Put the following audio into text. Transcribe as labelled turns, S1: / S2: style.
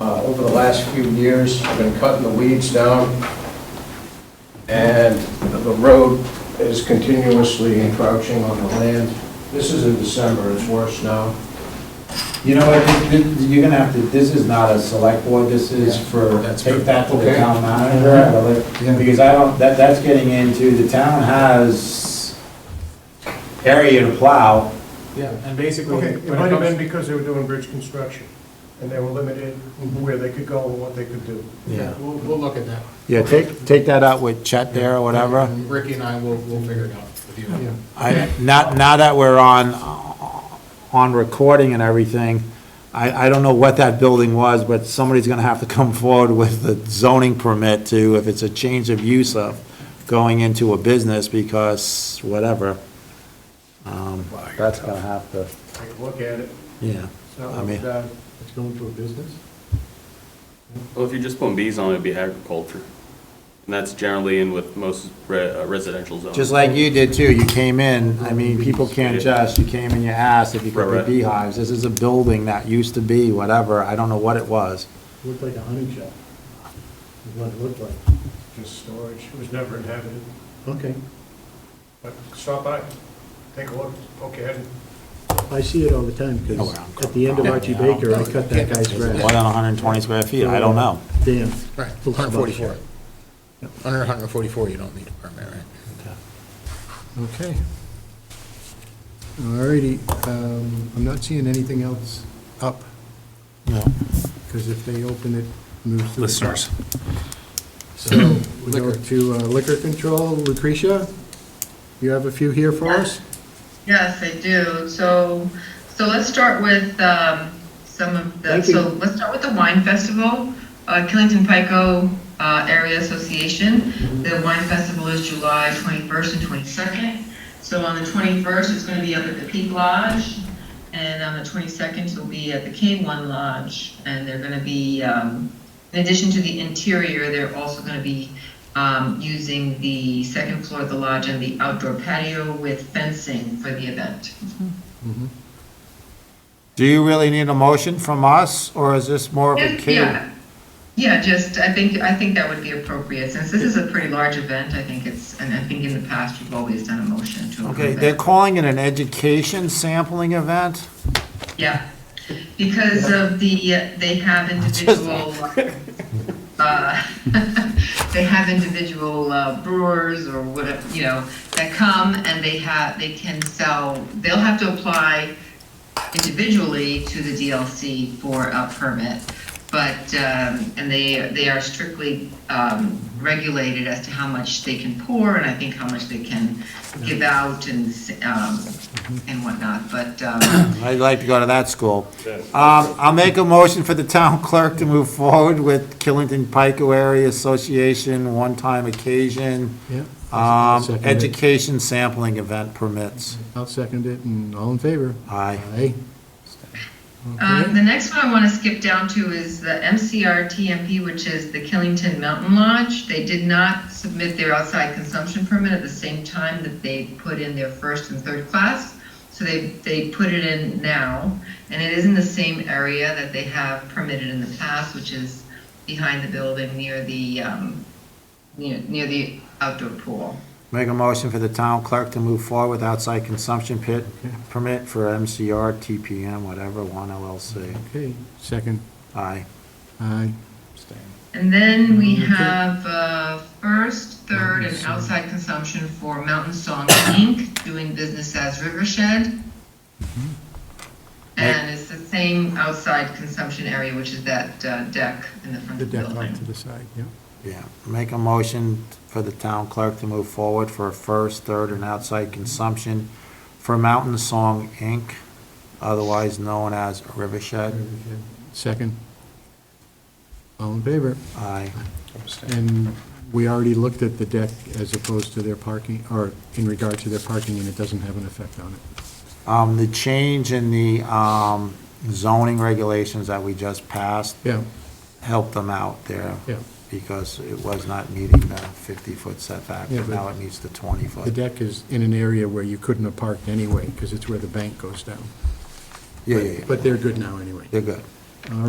S1: Uh, Over the last few years, I've been cutting the weeds down, and the road is continuously encroaching on the land. This is in December, it's worse now.
S2: You know what, th- th- you're gonna have to, this is not a select board, this is
S1: Yeah.
S2: for,
S3: That's
S2: take
S3: good.
S2: that to the
S1: Okay.
S2: town manager. Because I don't, that, that's getting into, the town has area to plow.
S3: Yeah, and basically.
S4: Okay,
S3: when
S4: it might have
S3: comes-
S4: been because they were doing bridge construction, and they were limited in where they could go and what they could do.
S3: Yeah, we'll, we'll look at that.
S2: Yeah, take, take that out with Chet there or whatever.
S3: And Ricky and I will, we'll figure it out with you.
S2: I, not, now that we're on, on recording and everything, I, I don't know what that building was, but somebody's gonna have to come forward with the zoning permit to, if it's a change of use of going into a business because whatever. Um, that's gonna have to,
S4: Take a look at it.
S2: yeah. I mean-
S4: It's uh, going to a business?
S5: Well, if you're just putting bees on, it'd be agriculture. And that's generally in with most re- uh, residential zones.
S2: Just like you did too, you came in, I mean, people can't just, you came and you asked if you could
S5: Right,
S2: be
S5: right.
S2: beehives. This is a building that used to be whatever, I don't know what it was.
S6: Looked like a hunting shop, is what it looked like.
S4: Just storage, it was never inhabited,
S6: Okay,
S4: but stop by, take a look, poke your head in.
S6: I see it all the time,
S2: Know where
S6: because
S2: Oh, I'm
S6: at the end of
S2: from.
S6: Archie
S2: Yeah, yeah.
S6: Baker, I cut that guy's
S2: What,
S6: grass.
S2: on 120 square feet, I don't know.
S6: Damn.
S3: Right,
S6: Looks about
S3: 144.
S6: shut.
S3: Under 144, you don't need a permit, right?
S7: Okay. All righty, um, I'm not seeing anything else up,
S2: No.
S7: because if they open it, moves to the top.
S3: Listeners.
S7: So, we go
S3: Liquor.
S7: to uh, liquor control, Lucretia, you have a few here for us?
S8: Yes, I do. So, so let's start with um, some of the,
S6: Thank you.
S8: so let's start with the wine festival. Uh, Killington Pico uh, Area Association, the wine festival is July 21st and 22nd. So on the 21st, it's going to be up at the Peak Lodge, and on the 22nd, it'll be at the K1 Lodge. And they're going to be, um, in addition to the interior, they're also going to be um, using the second floor of the lodge and the outdoor patio with fencing for the event.
S2: Do you really need a motion from us, or is this more of a cue?
S8: Yeah, yeah, just, I think, I think that would be appropriate, since this is a pretty large event, I think it's, and I think in the past, we've always done a motion to
S2: Okay,
S8: approve
S2: they're
S8: it.
S2: calling it an education sampling event?
S8: Yeah, because of the, uh, they have individual, uh, they have individual uh, brewers or whatever, you know, that come and they have, they can sell, they'll have to apply individually to the DLC for a permit, but, um, and they, they are strictly um, regulated as to how much they can pour, and I think how much they can give out and, um, and whatnot, but, um,
S2: I'd like to go to that school. Um, I'll make a motion for the town clerk to move forward with Killington Pico Area Association one-time occasion,
S7: Yeah.
S2: um,
S7: Second it.
S2: education sampling event permits.
S7: I'll second it, and all in favor?
S2: Aye.
S7: Aye.
S8: Um, the next one I want to skip down to is the MCR TMP, which is the Killington Mountain Lodge. They did not submit their outside consumption permit at the same time that they put in their first and third class. So they, they put it in now, and it is in the same area that they have permitted in the past, which is behind the building near the, um, near, near the outdoor pool.
S2: Make a motion for the town clerk to move forward with outside consumption pit permit for MCR, TPM, whatever, one LLC.
S7: Okay, second,
S2: Aye.
S7: aye.
S8: And then we have uh, first, third, and outside consumption for Mountain Song Inc., doing business as Rivershed. And it's the same outside consumption area, which is that uh, deck in the front
S7: The
S8: of the
S7: deck off to
S8: building.
S7: the side, yeah.
S2: Yeah, make a motion for the town clerk to move forward for a first, third, and outside consumption for Mountain Song Inc., otherwise known as Rivershed.
S7: Second. All in favor?
S2: Aye.
S7: And we already looked at the deck as opposed to their parking, or in regard to their parking, and it doesn't have an effect on it.
S2: Um, the change in the, um, zoning regulations that we just passed
S7: Yeah,
S2: helped them out there.
S7: Yeah.
S2: Because it was not meeting the fifty-foot setback,
S7: Yeah,
S2: but
S7: but-
S2: now it meets the twenty-foot.
S7: the deck is in an area where you couldn't have parked anyway, because it's where the bank goes down.
S2: Yeah, yeah, yeah.
S7: But they're good now anyway.
S2: They're good.
S7: All right.